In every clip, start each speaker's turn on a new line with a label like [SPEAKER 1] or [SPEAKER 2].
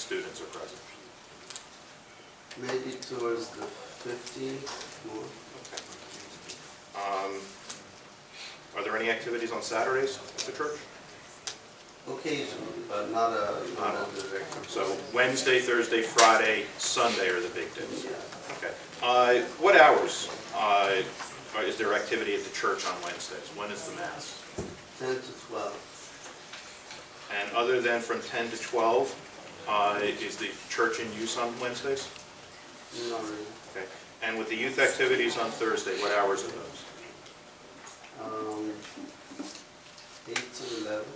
[SPEAKER 1] students are present.
[SPEAKER 2] Maybe towards the fifteenth, more.
[SPEAKER 1] Okay. Um, Are there any activities on Saturdays at the church?
[SPEAKER 2] Occasionally, but not a, not a direct.
[SPEAKER 1] So Wednesday, Thursday, Friday, Sunday are the big days.
[SPEAKER 2] Yeah.
[SPEAKER 1] Okay. Uh, What hours uh, are- is there activity at the church on Wednesdays? When is the mass?
[SPEAKER 2] Ten to twelve.
[SPEAKER 1] And other than from 10 to 12, uh, is the church in use on Wednesdays?
[SPEAKER 2] Not really.
[SPEAKER 1] Okay. And with the youth activities on Thursday, what hours are those?
[SPEAKER 2] Um, eight to eleven.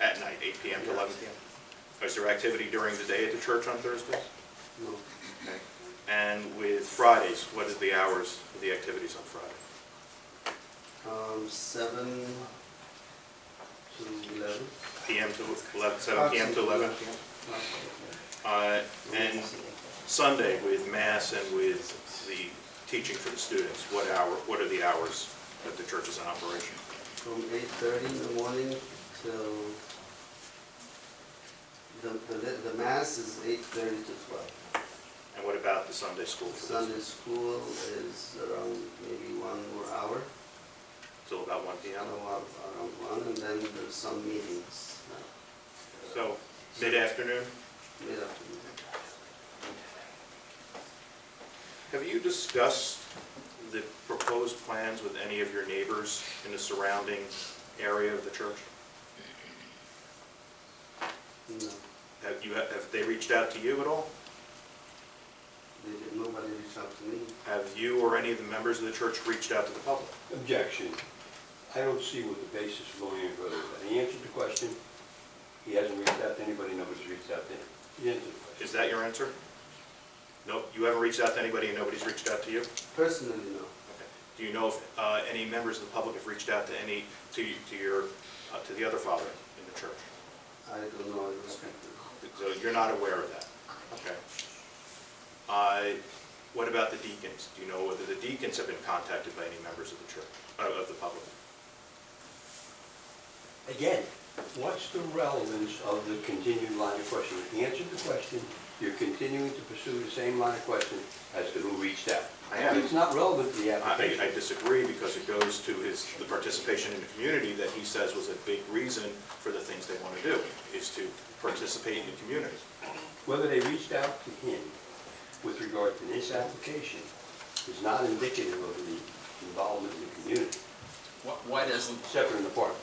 [SPEAKER 1] At night, 8 PM to 11 PM? Is there activity during the day at the church on Thursdays?
[SPEAKER 2] No.
[SPEAKER 1] Okay. And with Fridays, what is the hours of the activities on Friday?
[SPEAKER 2] Um, seven to eleven.
[SPEAKER 1] PM to 11, 7 PM to 11 PM? Uh, And Sunday with mass and with the teaching for the students, what hour, what are the hours that the church is in operation?
[SPEAKER 2] From eight thirty in the morning till, the, the, the mass is eight thirty to twelve.
[SPEAKER 1] And what about the Sunday school? for this?
[SPEAKER 2] Sunday school is around maybe one more hour,
[SPEAKER 1] Till about 1
[SPEAKER 2] I
[SPEAKER 1] PM?
[SPEAKER 2] don't know, around one, and then there's some meetings, uh,
[SPEAKER 1] So mid-afternoon?
[SPEAKER 2] mid-afternoon.
[SPEAKER 1] Have you discussed the proposed plans with any of your neighbors in the surrounding area of the church?
[SPEAKER 2] No,
[SPEAKER 1] Have you, have they reached out to you at all?
[SPEAKER 2] they did- nobody reached out to me.
[SPEAKER 1] Have you or any of the members of the church reached out to the public?
[SPEAKER 3] Objection. I don't see what the basis of going any further. with that. He answered the question. He hasn't reached out to anybody, nobody's reached out to him. He answered the question.
[SPEAKER 1] Is that your answer? No, you haven't reached out to anybody and nobody's reached out to you?
[SPEAKER 2] Personally, no.
[SPEAKER 1] Okay. Do you know if uh, any members of the public have reached out to any, to to your, uh, to the other father in the church?
[SPEAKER 2] I don't know, I respect it.
[SPEAKER 1] So you're not aware of that? Okay. Uh, What about the deacons? Do you know whether the deacons have been contacted by any members of the church, uh, of the public?
[SPEAKER 3] Again, what's the relevance of the continued line of questioning? He answered the question. You're continuing to pursue the same line of question as to who reached out.
[SPEAKER 1] I am.
[SPEAKER 3] It's not relevant to the
[SPEAKER 1] I
[SPEAKER 3] application.
[SPEAKER 1] I disagree because it goes to his, the participation in the community that he says was a big reason for the things they want to do, is to participate in the community.
[SPEAKER 3] Whether they reached out to him with regard to this application is not indicative of the involvement in the community,
[SPEAKER 4] Wh- Why doesn't,
[SPEAKER 3] separate and apart.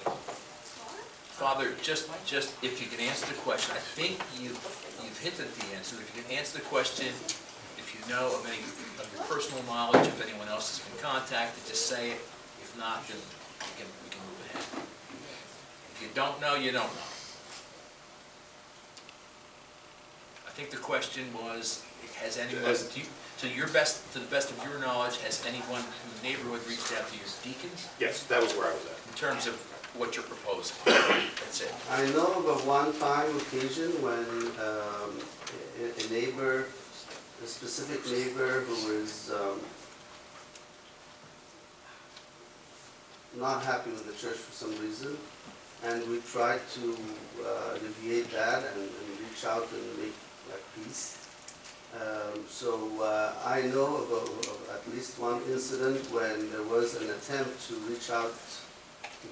[SPEAKER 4] Father, just, just if you can answer the question, I think you, you've hinted at the answer. If you can answer the question, if you know of any, of your personal knowledge, if anyone else has been contacted, just say it. If not, then we can, we can move ahead. If you don't know, you don't know. I think the question was, has anyone,
[SPEAKER 1] Has-
[SPEAKER 4] do you, to your best, to the best of your knowledge, has anyone in the neighborhood reached out to your deacons?
[SPEAKER 1] Yes, that was where I was at.
[SPEAKER 4] in terms of what you're proposing. That's it.
[SPEAKER 2] I know of a one-time occasion when um, a a neighbor, a specific neighbor who was um, not happy with the church for some reason, and we tried to uh, alleviate that and and reach out and make like peace. Um, So uh, I know of a- of at least one incident when there was an attempt to reach out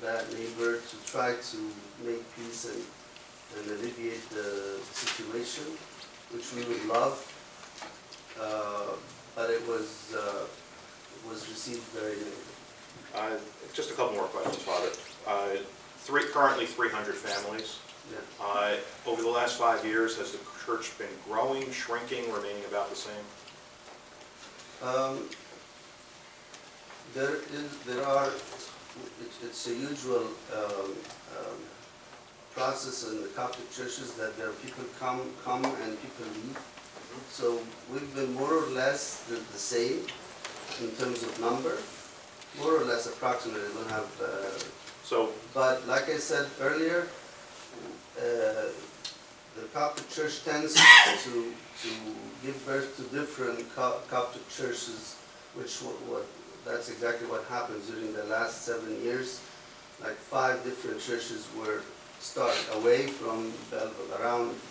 [SPEAKER 2] that neighbor to try to make peace and, and alleviate the situation, which we would love. Uh, But it was, uh, it was received very negatively.
[SPEAKER 1] Uh, Just a couple more questions, Father. Uh, Three, currently 300 families.
[SPEAKER 2] Yeah.
[SPEAKER 1] Uh, Over the last five years, has the church been growing, shrinking, remaining about the same?
[SPEAKER 2] Um, There is, there are, it- it's a usual um, um, process in the Catholic churches that there are people come, come and people leave. So we've been more or less the the same in terms of number, more or less approximately, we don't have, uh,
[SPEAKER 1] So,
[SPEAKER 2] but like I said earlier, uh, the Coptic Church tends to, to give birth to different Co- Coptic churches, which what, what, that's exactly what happened during the last seven years. Like five different churches were started away from Belleville, around